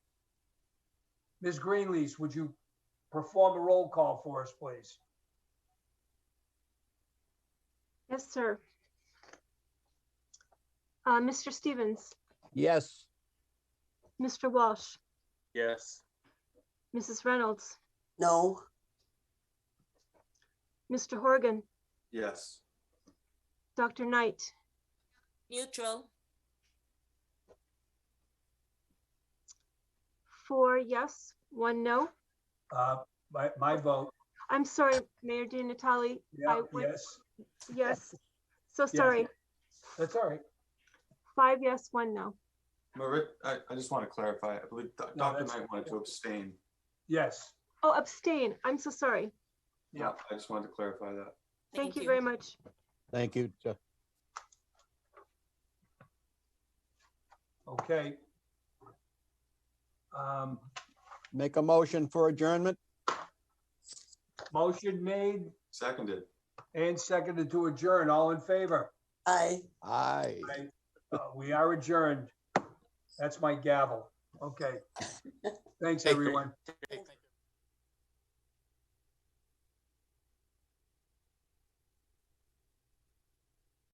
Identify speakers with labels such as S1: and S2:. S1: Ms. Greenlease, would you perform a roll call for us, please?
S2: Yes, sir. Uh, Mr. Stevens,
S3: Yes.
S2: Mr. Walsh,
S4: Yes.
S2: Mrs. Reynolds,
S5: No,
S2: Mr. Horgan,
S4: Yes.
S2: Dr. Knight,
S6: neutral,
S2: four yes, one no.
S1: Uh, my, my vote,
S2: I'm sorry, Mayor Di Natale,
S1: yeah,
S2: I would-
S1: yes,
S2: yes. So sorry,
S1: that's all right.
S2: five yes, one no.
S4: Marit, I, I just want to clarify, I believe Do-
S1: No,
S4: Dr.
S1: that's-
S4: Knight wanted to abstain.
S1: Yes,
S2: Oh, abstain. I'm so sorry.
S4: Yeah, I just wanted to clarify that.
S2: Thank you very much.
S3: Thank you. Ju-
S1: okay. Um,
S3: Make a motion for adjournment?
S1: motion made
S4: Seconded.
S1: and seconded to adjourn. All in favor?
S5: I.
S3: Aye.
S1: Uh, we are adjourned. That's my gavel. Okay. Thanks, everyone.
S5: Thank you.